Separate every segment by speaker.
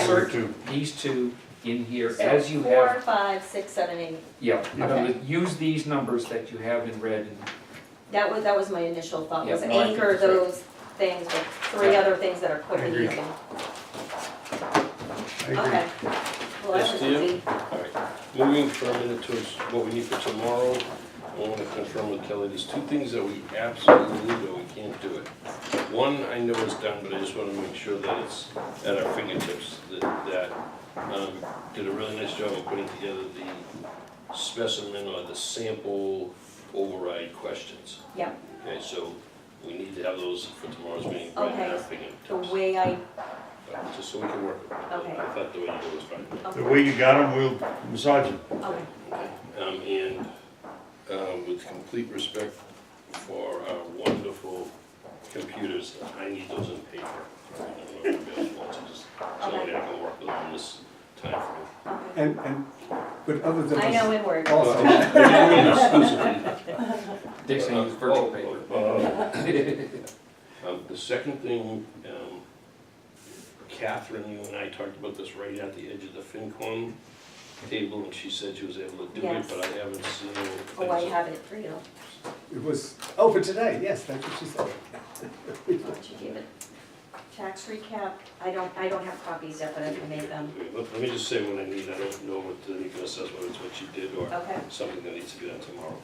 Speaker 1: insert
Speaker 2: two.
Speaker 1: these two in here
Speaker 3: So
Speaker 1: as you
Speaker 3: Four,
Speaker 1: have,
Speaker 3: five, six, seven, eight.
Speaker 1: yeah, I'm gonna
Speaker 3: Okay.
Speaker 1: use these numbers that you have in red. and-
Speaker 3: That was, that was my initial thought, was
Speaker 1: Yeah, no, I think
Speaker 3: anchor
Speaker 1: that's right.
Speaker 3: those things with three
Speaker 1: Yeah.
Speaker 3: other things that are quick
Speaker 2: I
Speaker 3: and
Speaker 2: agree.
Speaker 3: easy.
Speaker 2: I agree.
Speaker 3: Okay. Well, that
Speaker 4: Yes,
Speaker 3: was
Speaker 4: do you?
Speaker 3: easy.
Speaker 4: All right, moving for a minute to what we need for tomorrow, I want to confirm with Kelly, there's two things that we absolutely know we can't do it. One, I know is done, but I just want to make sure that it's at our fingertips, that, that, um, did a really nice job of putting together the specimen or the sample override questions.
Speaker 3: Yeah.
Speaker 4: Okay, so we need to have those for tomorrow's meeting, right at our
Speaker 3: Okay. The
Speaker 4: fingertips,
Speaker 3: way I,
Speaker 4: but just so we can work with it.
Speaker 3: Okay.
Speaker 4: I thought the way you did it was fine.
Speaker 2: The
Speaker 3: okay,
Speaker 2: way you got them, we'll massage it.
Speaker 3: okay,
Speaker 4: Um, and, um, with complete respect for our wonderful computers, I need those in paper. I don't know if you guys want to just, somebody I can work with on this timeframe.
Speaker 3: okay.
Speaker 5: And, and, but other than
Speaker 3: I know
Speaker 5: this,
Speaker 3: in word.
Speaker 5: also,
Speaker 4: Uh,
Speaker 1: Dixon used virtual paper.
Speaker 4: paper. oh, Um, the second thing, um, Catherine, you and I talked about this right at the edge of the FinCom table, and she said she was able to do it,
Speaker 3: Yes.
Speaker 4: but I haven't seen.
Speaker 3: Oh, I have it for you.
Speaker 5: it was, oh, for today, yes, that's what she said.
Speaker 3: Why don't you give it? Tax recap, I don't, I don't have copies yet, but I can make them.
Speaker 4: Okay, Let let me just say what I need, I don't know what the legal assessment is, what you did, or
Speaker 3: Okay,
Speaker 4: something that needs to be done tomorrow.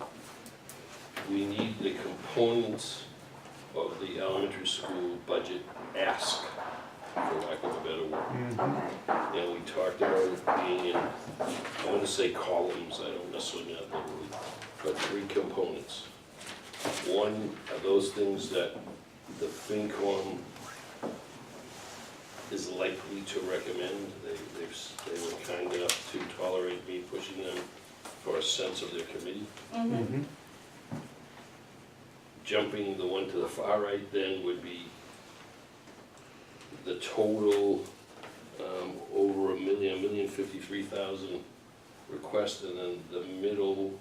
Speaker 4: We need the components of the elementary school budget ask, for lack of a better word.
Speaker 3: okay,
Speaker 4: And we talked about it being in, I wanna say columns, I don't necessarily know the word, but three components. One are those things that the FinCom is likely to recommend. They, they've, s- they were kind enough to tolerate me pushing them for a sense of their committee.
Speaker 3: mhm,
Speaker 5: Mhm.
Speaker 4: Jumping the one to the far right then would be the total, um, over a million, a million fifty-three thousand requests, and then the middle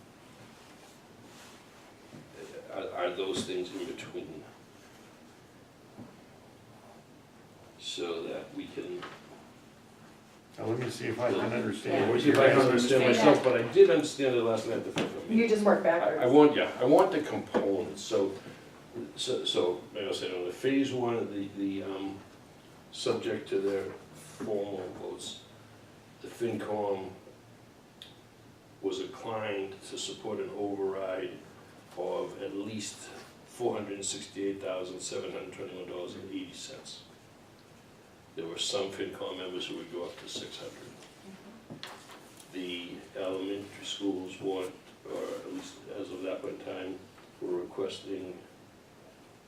Speaker 4: are, are those things in between. So that we can
Speaker 2: Now, let me see if I can
Speaker 3: Yeah.
Speaker 2: understand what
Speaker 4: See
Speaker 2: you're
Speaker 4: if I can understand
Speaker 2: asking.
Speaker 4: myself, but I did understand it last night at the FinCom meeting.
Speaker 6: You just work
Speaker 4: I I
Speaker 6: backwards.
Speaker 4: want, yeah, I want the components, so, so, so, like I said, on the phase one, the, the, um, subject to their formal votes, the FinCom was inclined to support an override of at least four hundred and sixty-eight thousand, seven hundred and twenty-one dollars and eighty cents. There were some FinCom members who would go up to six hundred. The elementary schools want or at least as of that point in time, we're requesting,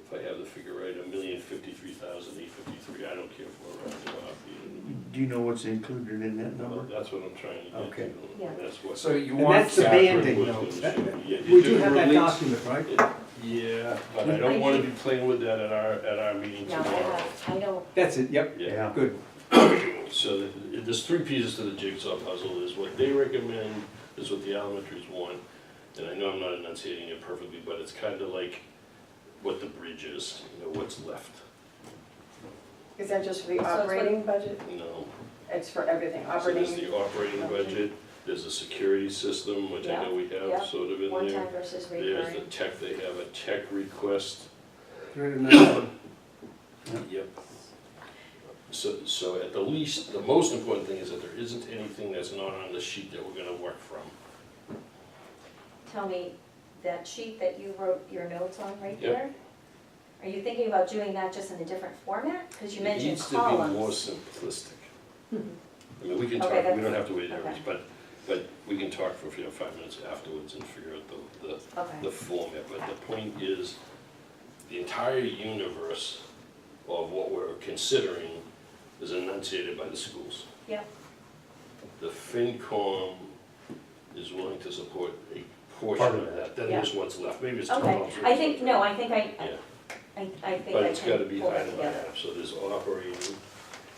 Speaker 4: if I have the figure right, a million fifty-three thousand eight fifty-three, I don't care if we're right or off the end.
Speaker 2: Do you know what's included in that
Speaker 4: Well,
Speaker 2: number?
Speaker 4: That's what I'm trying to get to,
Speaker 5: Okay.
Speaker 3: Yeah.
Speaker 4: and that's what.
Speaker 1: So you
Speaker 5: And
Speaker 1: want
Speaker 5: that's the
Speaker 1: Catherine.
Speaker 5: banding
Speaker 4: was
Speaker 5: though.
Speaker 4: gonna
Speaker 5: That-
Speaker 4: show me.
Speaker 5: that-
Speaker 4: Yeah, you
Speaker 5: We
Speaker 4: do
Speaker 5: do have that
Speaker 4: release-
Speaker 5: document, right?
Speaker 4: Yeah, but I don't wanna be playing with that at our, at our meeting
Speaker 3: no, I
Speaker 4: tomorrow.
Speaker 3: don't, I don't,
Speaker 5: That's it, yep,
Speaker 4: Yeah.
Speaker 5: good.
Speaker 4: So th- th- there's three pieces to the jigsaw puzzle, is what they recommend, is what the elementaries want. And I know I'm not enunciating it perfectly, but it's kind of like what the bridge is, you know, what's left.
Speaker 6: Is that just for the
Speaker 3: So it's like-
Speaker 6: operating budget?
Speaker 4: You know,
Speaker 6: It's for everything,
Speaker 4: so there's
Speaker 6: operating,
Speaker 4: the operating budget, there's a security system, which I know we
Speaker 3: Yeah,
Speaker 4: have sort of in
Speaker 3: one
Speaker 4: there.
Speaker 3: time versus
Speaker 4: There's the
Speaker 3: recurring.
Speaker 4: tech, they have a tech request,
Speaker 5: Three hundred and ninety.
Speaker 4: Yep. So, so at the least, the most important thing is that there isn't anything that's not on the sheet that we're gonna work from.
Speaker 3: Tell me, that sheet that you wrote your notes on right
Speaker 4: Yep.
Speaker 3: there? Are you thinking about doing that just in a different format? Because you
Speaker 4: It
Speaker 3: mentioned
Speaker 4: needs to be more
Speaker 3: columns. Hmm.
Speaker 4: simplistic. I mean, we can
Speaker 3: Okay,
Speaker 4: talk, we
Speaker 3: that's-
Speaker 4: don't have to wait hours,
Speaker 3: okay.
Speaker 4: but, but we can talk for, you know, five minutes afterwards and figure out the, the,
Speaker 3: Okay,
Speaker 4: the format. But the point is, the entire universe of what we're considering is enunciated by the schools.
Speaker 3: Yep.
Speaker 4: The FinCom is willing to support a
Speaker 2: Part
Speaker 4: portion
Speaker 2: of
Speaker 4: of
Speaker 2: that.
Speaker 4: that, then there's what's left, maybe it's two
Speaker 3: okay.
Speaker 4: dollars.
Speaker 3: I think, no, I think I,
Speaker 4: Yeah.
Speaker 3: I, I think
Speaker 4: But
Speaker 3: I
Speaker 4: it's gotta
Speaker 3: can
Speaker 4: be
Speaker 3: pull
Speaker 4: high
Speaker 3: it
Speaker 4: and
Speaker 3: together.
Speaker 4: high, so there's operating,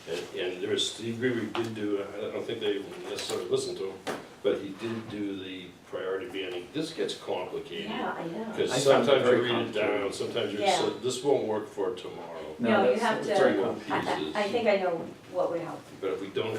Speaker 4: and, and there is, Steve Gregory did do, I don't think they even necessarily listened to him, but he did do the priority banning. This gets complicated.
Speaker 3: Yeah, I know.
Speaker 1: I
Speaker 4: Because
Speaker 1: found it
Speaker 4: sometimes you
Speaker 1: very
Speaker 4: read it
Speaker 1: complicated.
Speaker 4: down, sometimes you're,
Speaker 3: Yeah.
Speaker 4: so- this won't work for tomorrow.
Speaker 3: No, you
Speaker 1: that's-
Speaker 3: have
Speaker 1: that's
Speaker 3: to-
Speaker 1: very
Speaker 4: Three
Speaker 1: complicated.
Speaker 4: more
Speaker 3: I, I- I
Speaker 4: pieces.
Speaker 3: think I know what would help.
Speaker 4: But if we don't